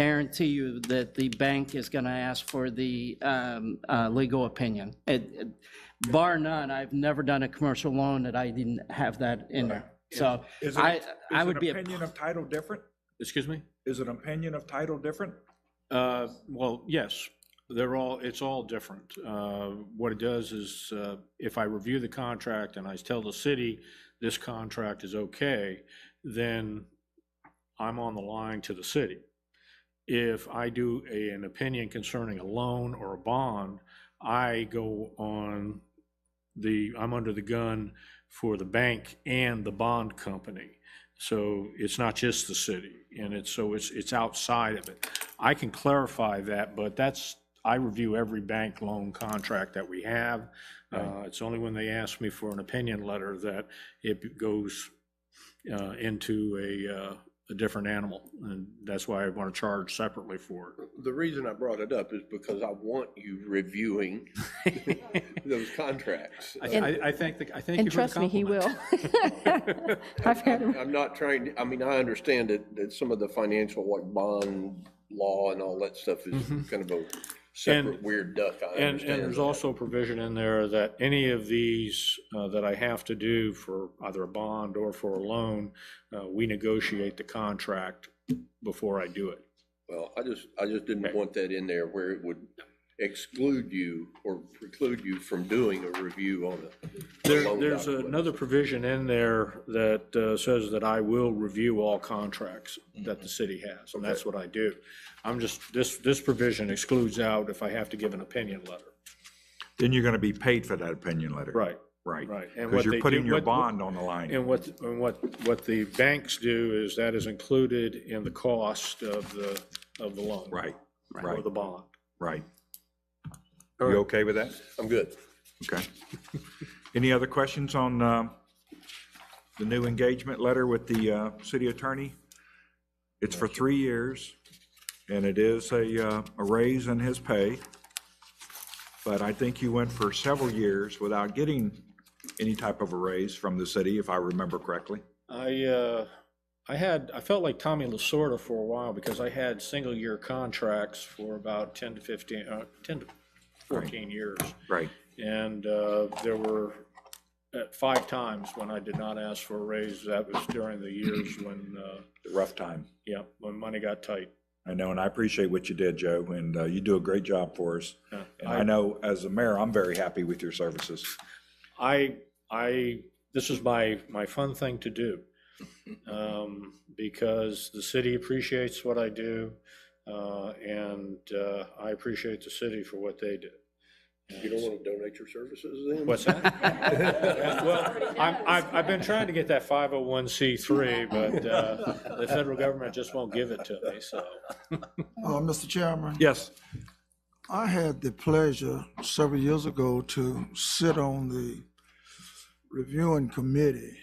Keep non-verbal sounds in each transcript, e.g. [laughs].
guarantee you that the bank is going to ask for the um, uh, legal opinion. It- it- Bar none, I've never done a commercial loan that I didn't have that in there. So Is it- I, I is would an be, a- Opinion of title different? Excuse me? Is an opinion of title different? Uh, Well, yes, they're all, it's all different. Uh, What it does is, uh, if I review the contract and I tell the city, this contract is okay, then I'm on the line to the city. If I do a- an opinion concerning a loan or a bond, I go on the, I'm under the gun for the bank and the bond company. So it's not just the city, and it's, so it's, it's outside of it. I can clarify that, but that's, I review every bank loan contract that we have. Uh, It's only when they ask me for an opinion letter that it goes uh, into a, uh, a different animal, and that's why I want to charge separately for it. The reason I brought it up is because I want you reviewing [laughs] those contracts. I, Uh, I- I thank, the- I thank And you for the trust me, he will. compliment. [laughs] I've had him. I'm not trying, to I mean, I understand that, that some of the financial, like bond law and all that stuff is kind of a separate And- weird duck. [laughs] I Mm-hmm. And, and understand there's that. also a provision in there that any of these uh, that I have to do for either a bond or for a loan, uh, we negotiate the contract before I do it. Well, I just, I just didn't want that in there where it would exclude you or preclude you from doing a review on it. There, loan there's document. another provision in there that uh, says that I will review all contracts Mm-hmm. that the city has, and that's what I do. I'm just, this, this provision excludes out if I have to give an opinion letter. Then you're going to be paid for that opinion letter. Right, Right. right. And Because what they you're do- putting your what- bond on the line. And what, and what, what the banks do is that is included in the cost of the, of the loan. Right, Or right, the bond. right. You okay with that? I'm good. Okay. Any other questions on um, the new engagement letter with the uh, city attorney? It's for three years, and it is a, uh, a raise in his pay. But I think you went for several years without getting any type of a raise from the city, if I remember correctly. I, uh, I had, I felt like Tommy Lasorda for a while because I had single-year contracts for about 10 to 15, uh, 10 to 14 years. Right. And uh, there were, at five times when I did not ask for a raise, that was during the years when, uh, The rough time. yeah, when money got tight. I know, and I appreciate what you did, Joe, and uh, you do a great job for us. Yeah. And I know, as a mayor, I'm very happy with your services. I, I, this is my, my fun thing to do. um, Because the city appreciates what I do, uh, and uh, I appreciate the city for what they do. You don't want to donate your services then? What's that? Well, I'm, I've, I've been trying to get that 501c3, but uh, the federal government just won't give it to me, so. Uh, Mr. Chairman, Yes. I had the pleasure several years ago to sit on the reviewing committee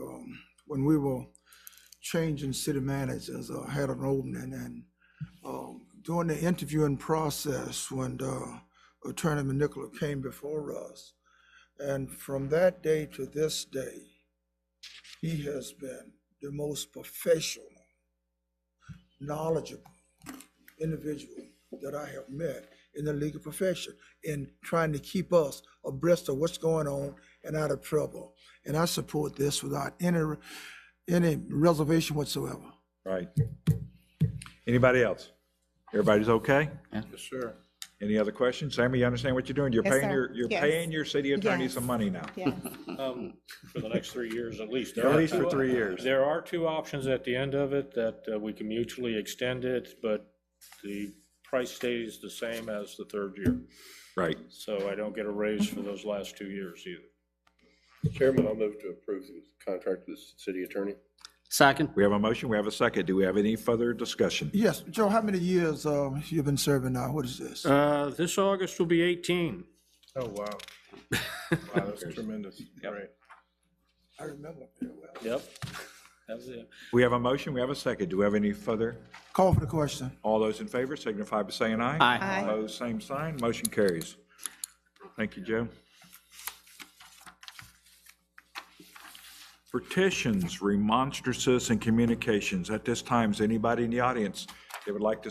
um, when we were changing city managers, I had an opening and um, during the interviewing process, when uh, Attorney Manicola came before us, and from that day to this day, he has been the most professional, knowledgeable, individual that I have met in the legal profession in trying to keep us abreast of what's going on and out of trouble. And I support this without any, any reservation whatsoever. Right. Anybody else? Everybody's okay? Yes, sir. Any other questions? Sammy, you understand what you're doing? You're Yes, paying sir. your, you're Yes. paying your city attorney Yes. some money now. Yeah, um, for the next three years at least. At least for three years. There are two options at the end of it that uh, we can mutually extend it, but the price stays the same as the third year. Right. So I don't get a raise for those last two years either. Chairman, I'll move to approve the contract with the city attorney. second, We have a motion, we have a second. Do we have any further discussion? Yes, Joe, how many years uh, you been serving now? What is this? Uh, This August will be 18. Oh, wow. Wow, that's tremendous. Right. I remember very well. Yep. That's it. We have a motion, we have a second. Do we have any further? Call for the question. All those in favor signify by saying aye. aye. I, Opposed, same sign. Motion carries. Thank you, Joe. Petitions, remonstrances, and communications. At this time, is anybody in the audience They would like to